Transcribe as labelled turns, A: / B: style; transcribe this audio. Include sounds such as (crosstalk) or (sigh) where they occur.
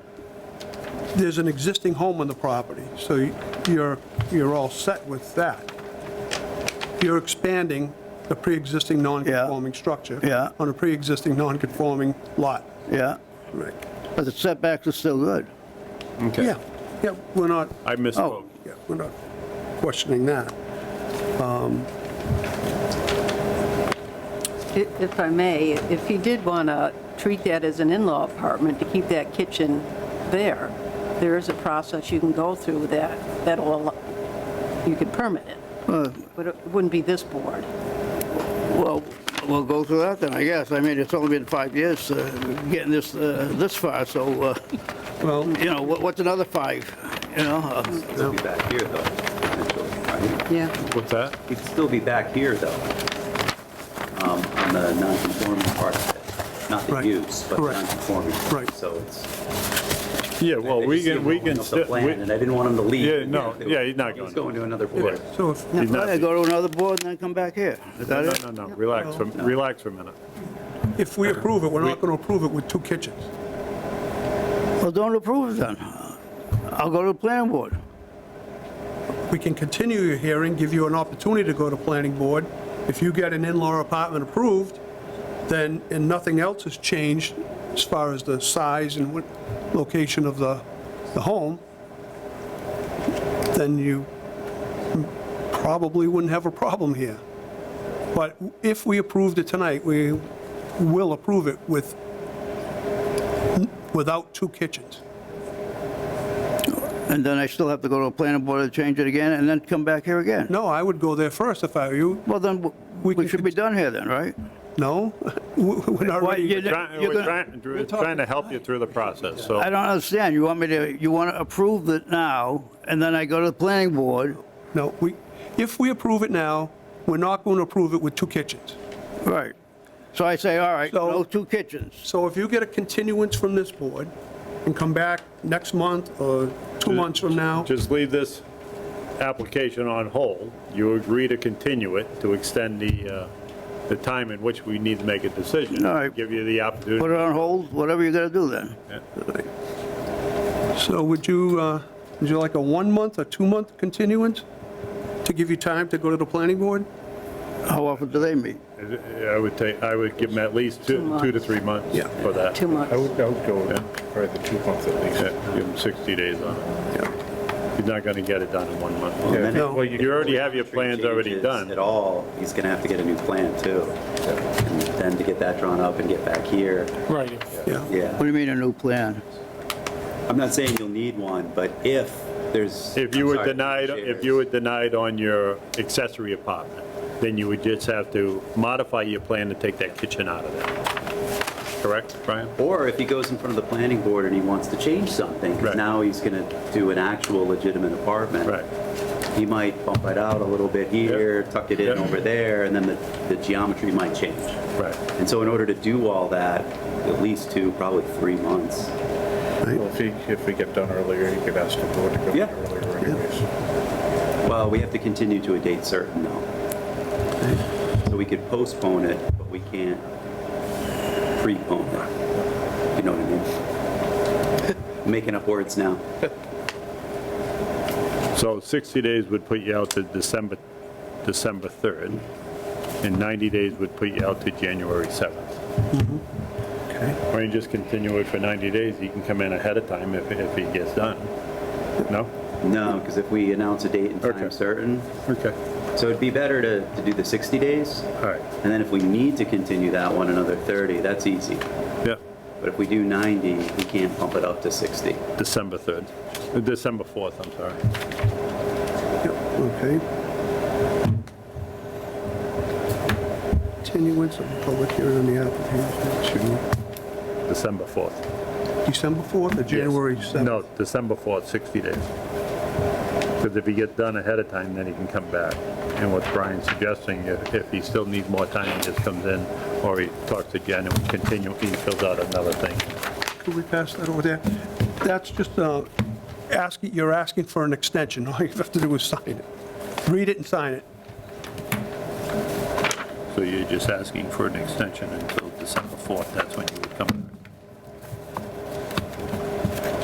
A: there's an existing home on the property, so you- you're, you're all set with that. You're expanding the pre-existing non-conforming structure.
B: Yeah.
A: On a pre-existing non-conforming lot.
B: yeah,
A: Right.
B: but the setbacks are still good.
A: Yeah, yeah, we're not,
C: I
B: Oh.
C: misspoke.
A: yeah, we're not questioning that.
D: If if I may, if he did want to treat that as an in-law apartment to keep that kitchen there, there is a process you can go through that, that'll, allow- you could permit it, but it wouldn't be this board.
B: Well, we'll go through that then, I guess. I mean, it's only been five years uh, getting this, uh, this far, so, uh,
A: Well,
B: you know, what- what's another five, you know? uh,
E: It'll be back here, though. potentially, right?
D: Yeah.
C: What's that?
E: He'd still be back here, though, um, on the non-conforming part of it. Not the
A: Right.
E: use, but
A: Correct.
E: non-conforming.
A: Right.
E: So it's.
C: Yeah, well,
E: I
C: we
E: just see
C: can,
E: him
C: we
E: rolling
C: can,
E: up the
C: sti-
E: plan,
C: we-
E: And I didn't want him to leave.
C: Yeah, no, yeah, he's not
E: He was
C: going
E: going to another
C: yeah.
E: board.
A: so if,
C: He's
B: Yeah,
C: not, no,
B: Go to another board and then come back here. Is that it?
C: no, no, relax, for- relax for a minute.
A: if we approve it, we're not going to approve it with two kitchens.
B: Well, don't approve it then. I'll go to the planning board.
A: We can continue your hearing, give you an opportunity to go to planning board. If you get an in-law apartment approved, then, and nothing else has changed as far as the size and what, location of the, the home, then you probably wouldn't have a problem here. But if we approved it tonight, we will approve it with, without two kitchens.
B: And then I still have to go to the planning board to change it again and then come back here again.
A: No, I would go there first if I were you.
B: Well, then, w-
A: We
B: we
A: can
B: should be done here then, right?
A: No? (laughs) We're not
B: Why,
A: ready.
B: you-
C: Trying-
B: you're
C: We're
B: gonna-
C: trying, we're trying to help you through the process, so.
B: I don't understand. You want me to, you want to approve it now, and then I go to the planning board?
A: No, we, if we approve it now, we're not going to approve it with two kitchens.
B: Right. So I say, all right,
A: So-
B: no two kitchens.
A: So if you get a continuance from this board and come back next month or two months from now,
C: Just leave this application on hold. You agree to continue it, to extend the, uh, the time in which we need to make a decision.
B: All right.
C: Give you the
B: Put
C: opportunity.
B: it on hold, whatever you got to do then.
A: so would you, uh, would you like a one-month or two-month continuance to give you time to go to the planning board?
B: How often do they meet?
C: I would take, I would give them at least
D: Two
C: two,
D: months.
C: two to three months
A: Yeah.
C: for that.
D: Two months.
F: I would, I would go for the two months at
C: Yeah,
F: least.
C: Give them 60 days on it. He's not going to get it done in one month.
F: Yeah,
A: No.
F: well, you-
C: You already have your plans already
E: Changes
C: done.
E: At all, he's going to have to get a new plan, too. And then to get that drawn up and get back here,
G: Right.
A: Yeah.
B: What
E: yeah.
B: do you mean a new plan?
E: I'm not saying you'll need one, but if there's.
C: If you
E: I'm
C: were
E: sorry,
C: denied, if
E: shares.
C: you were denied on your accessory apartment, then you would just have to modify your plan to take that kitchen out of there. Correct, Brian?
E: Or if he goes in front of the planning board and he wants to change something, 'cause
C: Right.
E: now he's going to do an actual legitimate apartment.
C: Right.
E: He might bump it out a little bit here, tuck it in
C: Yeah.
E: over there, and then the, the geometry might change.
C: Right.
E: And so in order to do all that, at least two, probably three months.
F: Well, If he, if we get done earlier, you could ask the board to go
E: Yeah.
F: earlier anyways.
E: Well, we have to continue to a date certain though. So we could postpone it, but we can't prepone it. You know what
C: (laughs)
E: I mean? Making up words now.
C: So 60 days would put you out to December, December 3rd, and 90 days would put you out to January 7th.
A: Okay.
C: Or you just continue it for 90 days, he can come in ahead of time if, if he gets done. No?
E: No, because if we announce a date and
C: Okay.
E: time certain,
C: Okay.
E: so it'd be better to, to do the 60 days.
C: All right,
E: And then if we need to continue that one another 30, that's easy.
C: yeah,
E: But if we do 90, we can't pump it up to 60.
C: December 3rd, Uh, December 4th, I'm sorry.
A: Okay. Continuance of the public hearing on the application
C: December 4th.
A: to December 4th or January
C: Yes.
A: 7th?
C: No, December 4th, 60 days. Because if he gets done ahead of time, then he can come back. And what Brian's suggesting, if if he still needs more time, he just comes in, or he talks to Jen and continue, he fills out another thing.
A: Could we pass that over there? That's just, uh, asking, you're asking for an extension. (laughs) All you have to do is sign it. Read it and sign it.
C: So you're just asking for an extension until December 4th, that's when